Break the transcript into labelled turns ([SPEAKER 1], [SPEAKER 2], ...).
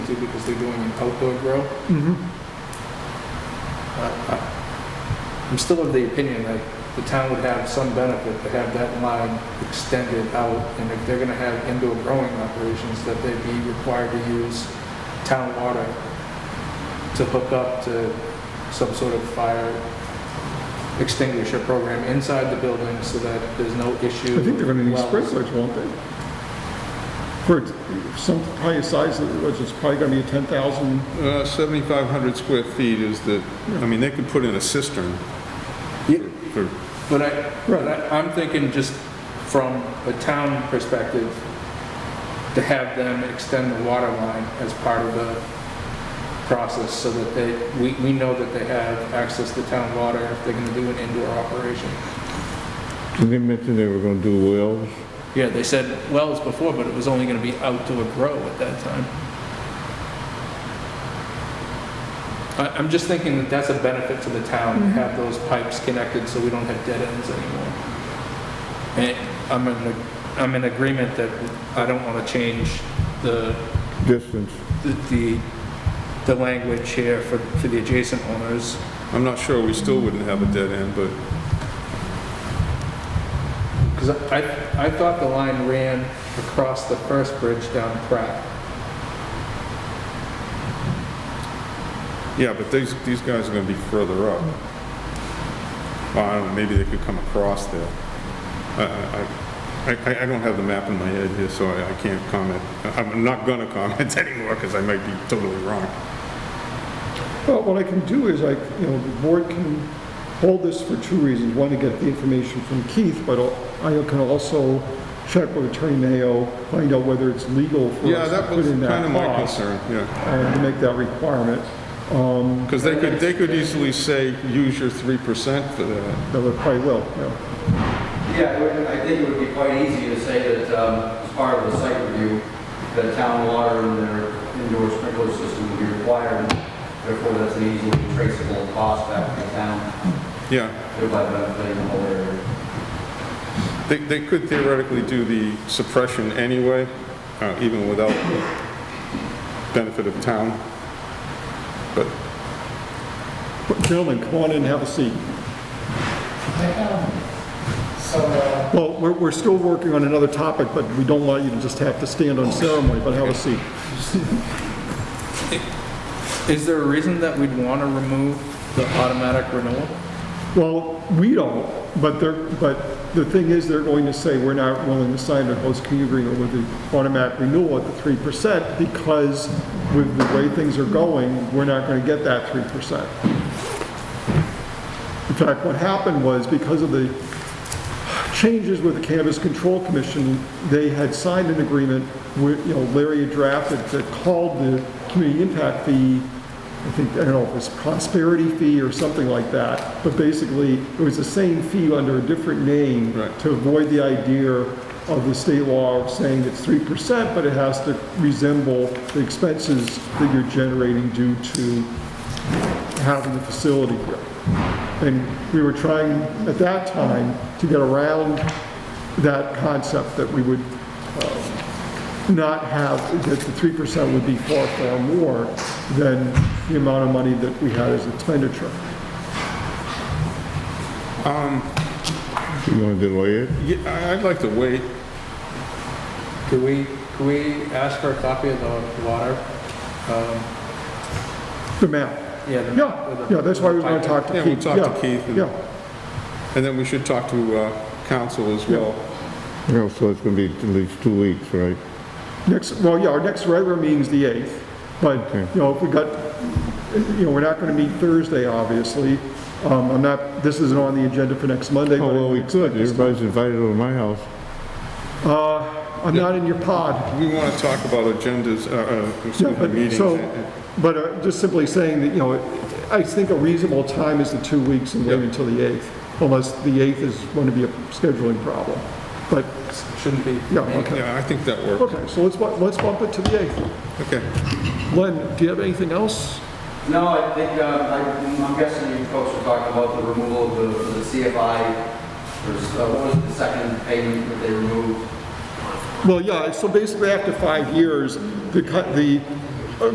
[SPEAKER 1] to because they're doing an outdoor grill.
[SPEAKER 2] Mm-hmm.
[SPEAKER 1] Uh, I'm still of the opinion that the town would have some benefit to have that line extended out, and if they're gonna have indoor growing operations, that they'd be required to use town water to hook up to some sort of fire extinguisher program inside the building so that there's no issue.
[SPEAKER 2] I think they're gonna need
[SPEAKER 1] Well,
[SPEAKER 2] sprinklers, won't they? For some higher size, that it was, it's probably gonna be a 10,000,
[SPEAKER 3] Uh, 7,500 square feet is the, I mean, they could put in a cistern
[SPEAKER 1] Yeah.
[SPEAKER 3] for,
[SPEAKER 1] But I, but I- I'm thinking just from a town perspective, to have them extend the water line as part of the process so that they, we, we know that they have access to town water if they're gonna do an indoor operation.
[SPEAKER 4] Did they mention they were gonna do wells?
[SPEAKER 1] Yeah, they said wells before, but it was only gonna be outdoor grow at that time. I, I'm just thinking that that's a benefit to the town, to have those pipes connected so we don't have dead ends anymore. And I'm in, a- I'm in agreement that I don't wanna change the,
[SPEAKER 4] Distance?
[SPEAKER 1] the- the, the language here for, for the adjacent owners.
[SPEAKER 3] I'm not sure, we still wouldn't have a dead end, but
[SPEAKER 1] Because I, I thought the line ran across the first bridge down Pratt.
[SPEAKER 3] Yeah, but these, these guys are gonna be further up. Well, I don't know, maybe they could come across there. I, I- I, I, I don't have the map in my head here, so I, I can't comment. I'm not gonna comment anymore, because I might be totally wrong.
[SPEAKER 2] well, what I can do is I, you know, the board can hold this for two reasons. One, to get the information from Keith, but I can also check with Attorney Mayo, find out whether it's legal for
[SPEAKER 3] Yeah,
[SPEAKER 2] us to
[SPEAKER 3] that
[SPEAKER 2] put
[SPEAKER 3] was
[SPEAKER 2] in
[SPEAKER 3] kind
[SPEAKER 2] that
[SPEAKER 3] of my
[SPEAKER 2] clause,
[SPEAKER 3] concern, yeah.
[SPEAKER 2] uh, to make that requirement. Um,
[SPEAKER 3] Because they could, they could easily say, use your 3% for that.
[SPEAKER 2] that would probably will, yeah.
[SPEAKER 5] Yeah, it would- I think it would be quite easy to say that um, as part of the site review, that town water and their indoor sprinkler system would be required. Therefore, that's an easily traceable cost back to the town,
[SPEAKER 3] Yeah,
[SPEAKER 5] thereby benefiting the whole area.
[SPEAKER 3] they, they could theoretically do the suppression anyway, uh, even without the benefit of town. But
[SPEAKER 2] But Gentlemen, come on in and have a seat.
[SPEAKER 6] So, uh,
[SPEAKER 2] Well, we're, we're still working on another topic, but we don't want you to just have to stand on ceremony, but have a seat.
[SPEAKER 1] Is there a reason that we'd want to remove the automatic renewal?
[SPEAKER 2] Well, we don't, but they're, but the thing is, they're going to say, we're not willing to sign a host community agreement with the automatic renewal at the 3% because with the way things are going, we're not going to get that 3%. In fact, what happened was because of the changes with the Cannabis Control Commission, they had signed an agreement with, you know, Larry had drafted that called the community impact fee, I think, I don't know, if it was prosperity fee or something like that, but basically, it was the same fee under a different name
[SPEAKER 3] Right.
[SPEAKER 2] to avoid the idea of the state law saying it's three percent, but it has to resemble the expenses that you're generating due to having the facility here. And we were trying at that time to get around that concept that we would um, not have, that the 3% would be far, far more than the amount of money that we had as expenditure.
[SPEAKER 4] You gonna delay it?
[SPEAKER 3] Yeah, I- I'd like to wait.
[SPEAKER 1] Could we, could we ask for a copy of the water? um,
[SPEAKER 2] The map.
[SPEAKER 1] Yeah, the-
[SPEAKER 2] Yeah, yeah, that's why we want to talk to
[SPEAKER 3] Yeah,
[SPEAKER 2] Keith.
[SPEAKER 3] we'll talk to Keith and-
[SPEAKER 2] Yeah,
[SPEAKER 3] And then we should talk to uh, council as well.
[SPEAKER 4] No, so it's gonna be at least two weeks, right?
[SPEAKER 2] next, well, yeah, our next regular meeting's the 8th, but,
[SPEAKER 4] Okay.
[SPEAKER 2] you know, if we got, you know, we're not going to meet Thursday, obviously. Um, I'm not, this isn't on the agenda for next Monday, but.
[SPEAKER 4] Oh, well, we
[SPEAKER 2] it's
[SPEAKER 4] could,
[SPEAKER 2] next-
[SPEAKER 4] everybody's invited over to my house.
[SPEAKER 2] Uh, I'm not in your pod.
[SPEAKER 3] We want to talk about agendas, uh, uh, excuse
[SPEAKER 2] Yeah,
[SPEAKER 3] me,
[SPEAKER 2] but-
[SPEAKER 3] meetings.
[SPEAKER 2] So, but uh, just simply saying that, you know, I think a reasonable time is the two weeks and wait
[SPEAKER 3] Yeah.
[SPEAKER 2] until the 8th, unless the 8th is going to be a scheduling problem. But,
[SPEAKER 1] Shouldn't be.
[SPEAKER 2] yeah, okay.
[SPEAKER 3] Yeah, I think that works.
[SPEAKER 2] Okay, so let's, bu- let's bump it to the 8th.
[SPEAKER 3] Okay.
[SPEAKER 2] Len, do you have anything else?
[SPEAKER 5] No, I think, uh, I- I'm guessing you folks were talking about the removal of the- the CFI, or s- uh, what was it, the second payment that they removed?
[SPEAKER 2] Well, yeah, so basically after five years, the, co- the